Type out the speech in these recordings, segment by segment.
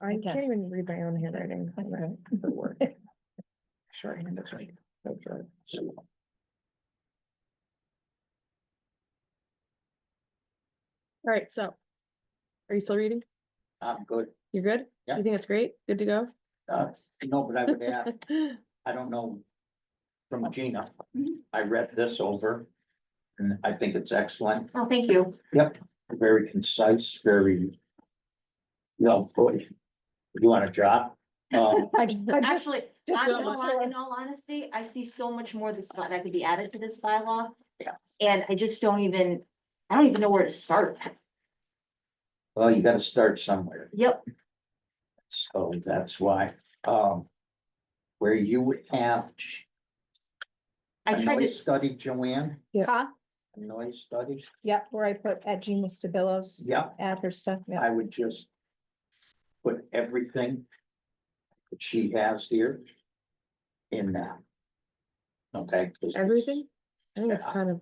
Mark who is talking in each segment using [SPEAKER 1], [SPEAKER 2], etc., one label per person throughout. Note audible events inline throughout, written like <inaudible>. [SPEAKER 1] I
[SPEAKER 2] Okay.
[SPEAKER 1] can't even read my own handwriting.
[SPEAKER 2] Okay.
[SPEAKER 1] Shorthand is like. so short. <laughs> All right, so. Are you still reading?
[SPEAKER 3] I'm good.
[SPEAKER 1] You're good?
[SPEAKER 3] Yeah.
[SPEAKER 1] You think it's great? Good to go?
[SPEAKER 3] Uh, no, but I
[SPEAKER 1] <laughs>
[SPEAKER 3] would add, I don't know. From Gina,
[SPEAKER 2] Mm-hmm.
[SPEAKER 3] I read this over and I think it's excellent,
[SPEAKER 2] Oh, thank you.
[SPEAKER 3] very concise, very. Well, boy, you want a job? Um,
[SPEAKER 2] Actually,
[SPEAKER 1] just
[SPEAKER 2] I
[SPEAKER 1] so
[SPEAKER 2] know,
[SPEAKER 1] much
[SPEAKER 2] I-
[SPEAKER 1] more.
[SPEAKER 2] in all honesty, I see so much more that's not- that could be added to this bylaw.
[SPEAKER 3] Yes.
[SPEAKER 2] And I just don't even, I don't even know where to start.
[SPEAKER 3] well, you gotta start somewhere,
[SPEAKER 2] Yep,
[SPEAKER 3] so that's why, um. Where you have,
[SPEAKER 2] I
[SPEAKER 3] a
[SPEAKER 2] tried
[SPEAKER 3] noise
[SPEAKER 2] to,
[SPEAKER 3] study, Joanne,
[SPEAKER 4] Huh?
[SPEAKER 3] a noise study,
[SPEAKER 4] Yep, where I put at Gina Stabilo's,
[SPEAKER 3] yeah.
[SPEAKER 4] add her stuff, yeah.
[SPEAKER 3] I would just put everything that she has here in that. Okay? 'cause it's
[SPEAKER 1] Everything? I think it's
[SPEAKER 3] Yeah.
[SPEAKER 1] kind of,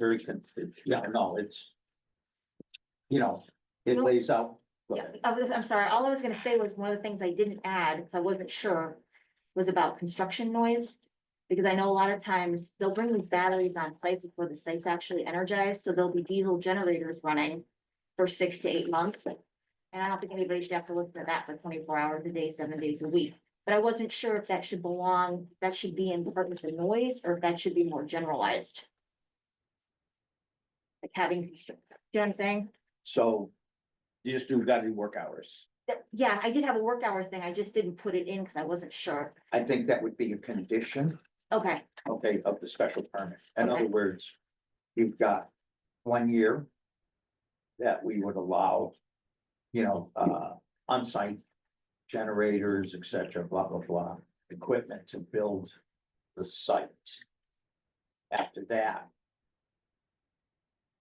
[SPEAKER 3] Very confusing. Yeah, no, it's, you know, it
[SPEAKER 2] No.
[SPEAKER 3] lays out.
[SPEAKER 2] yeah, I was- I'm sorry, all I was gonna say was one of the things I didn't add, because I wasn't sure, was about construction noise. Because I know a lot of times they'll bring these batteries on site before the site's actually energized, so there'll be diesel generators running for six to eight months. And I don't think anybody should have to listen to that for twenty-four hours a day, seven days a week. But I wasn't sure if that should belong, that should be in department of noise, or if that should be more generalized. Like having, constr- you know what I'm saying?
[SPEAKER 3] So you just do gotta do work hours.
[SPEAKER 2] That- yeah, I did have a work hour thing, I just didn't put it in because I wasn't sure.
[SPEAKER 3] I think that would be a condition.
[SPEAKER 2] Okay,
[SPEAKER 3] okay, of the special permit. In
[SPEAKER 2] Okay.
[SPEAKER 3] other words, you've got one year that we would allow, you know, uh, onsite generators, et cetera, blah, blah, blah, equipment to build the site. After that,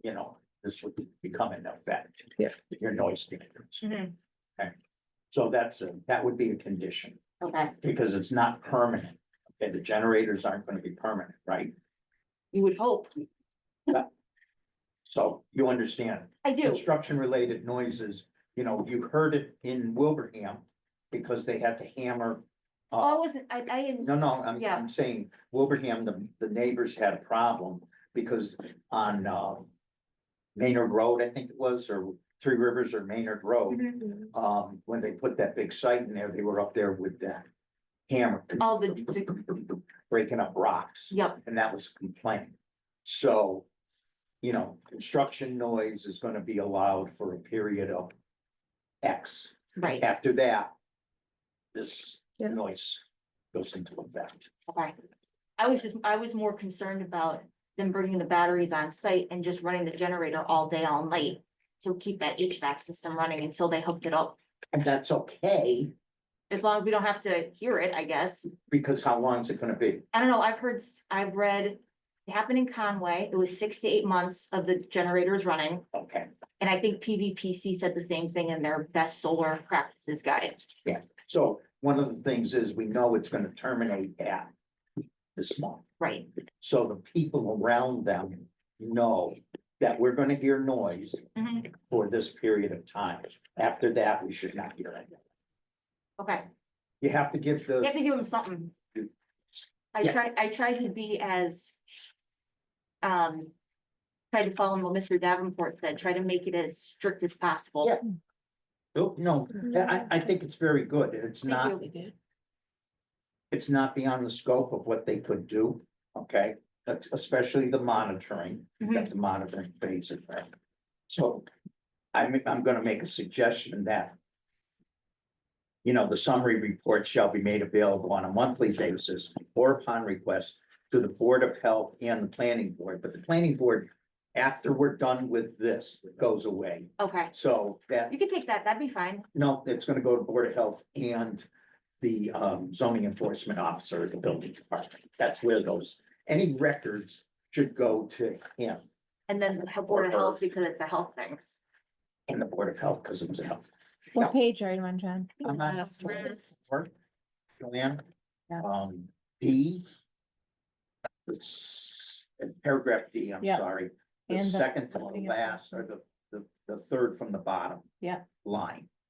[SPEAKER 3] you know, this would become an effect.
[SPEAKER 1] Yeah.
[SPEAKER 3] Your noise standards.
[SPEAKER 2] Mhm.
[SPEAKER 3] Okay. So that's, a that would be a condition
[SPEAKER 2] okay,
[SPEAKER 3] because it's not permanent. Okay, the generators aren't gonna be permanent, right?
[SPEAKER 2] you would hope,
[SPEAKER 3] So you understand,
[SPEAKER 2] I do,
[SPEAKER 3] construction related noises, you know, you heard it in Wilbraham because they had to hammer.
[SPEAKER 2] oh, I
[SPEAKER 3] Uh,
[SPEAKER 2] wasn't, I, I didn't,
[SPEAKER 3] no, no, I'm,
[SPEAKER 2] Yeah.
[SPEAKER 3] I'm saying Wilbraham, the, the neighbors had a problem because on, uh. Maynard Road, I think it was, or Three Rivers or Maynard Road,
[SPEAKER 2] Mm-hmm.
[SPEAKER 3] um, when they put that big site in there, they were up there with that hammer.
[SPEAKER 2] All the-
[SPEAKER 3] Breaking up rocks.
[SPEAKER 2] yep,
[SPEAKER 3] and that was a complaint. So, you know, construction noise is gonna be allowed for a period of X.
[SPEAKER 2] right,
[SPEAKER 3] After that, this
[SPEAKER 1] Yeah.
[SPEAKER 3] noise goes into effect.
[SPEAKER 2] okay. I was just, I was more concerned about them bringing the batteries on site and just running the generator all day, all night to keep that HVAC system running until they hooked it up,
[SPEAKER 3] And that's okay,
[SPEAKER 2] as long as we don't have to hear it, I guess.
[SPEAKER 3] because how long is it gonna be?
[SPEAKER 2] I don't know, I've heard, s- I've read, it happened in Conway, it was six to eight months of the generators running.
[SPEAKER 3] Okay,
[SPEAKER 2] And I think PVPC said the same thing in their best solar practices guide.
[SPEAKER 3] so one of the things is we know it's gonna terminate at this month.
[SPEAKER 2] Right,
[SPEAKER 3] So the people around them know that we're gonna hear noise
[SPEAKER 2] Mhm.
[SPEAKER 3] for this period of time. After that, we should not hear it.
[SPEAKER 2] okay.
[SPEAKER 3] You have to give
[SPEAKER 2] You
[SPEAKER 3] the,
[SPEAKER 2] have to give them something. I
[SPEAKER 3] Yeah.
[SPEAKER 2] tried, I tried to be as. Um. Tried to follow what Mr. Davenport said, try to make it as strict as possible.
[SPEAKER 3] Yeah. Oh, no, I, I think it's very good. It's not, it's not beyond the scope of what they could do, okay? That's Especially the monitoring, you got the monitoring phase of that. So I'm, I'm gonna make a suggestion that you know, the summary report shall be made available on a monthly basis or upon request to the Board of Health and the Planning Board, but the Planning Board, after we're done with this, goes away.
[SPEAKER 2] Okay,
[SPEAKER 3] So that
[SPEAKER 2] you can take that, that'd be fine.
[SPEAKER 3] No, it's gonna go to Board of Health and the um zoning enforcement officer, at the building department. That's where those, any records should go to him
[SPEAKER 2] And then the Board of Health, because it's a health thing.
[SPEAKER 3] and the Board of Health, because it's a health.
[SPEAKER 4] What page are you on, John?
[SPEAKER 3] I'm on
[SPEAKER 4] Last one.
[SPEAKER 3] Work, Joanne,
[SPEAKER 4] Yeah.
[SPEAKER 3] um, D. It's paragraph D, I'm
[SPEAKER 4] Yeah.
[SPEAKER 3] sorry, the
[SPEAKER 4] And the
[SPEAKER 3] second to the
[SPEAKER 4] zoning
[SPEAKER 3] last, or the, the, the third from the bottom.
[SPEAKER 4] Yeah.
[SPEAKER 3] Line,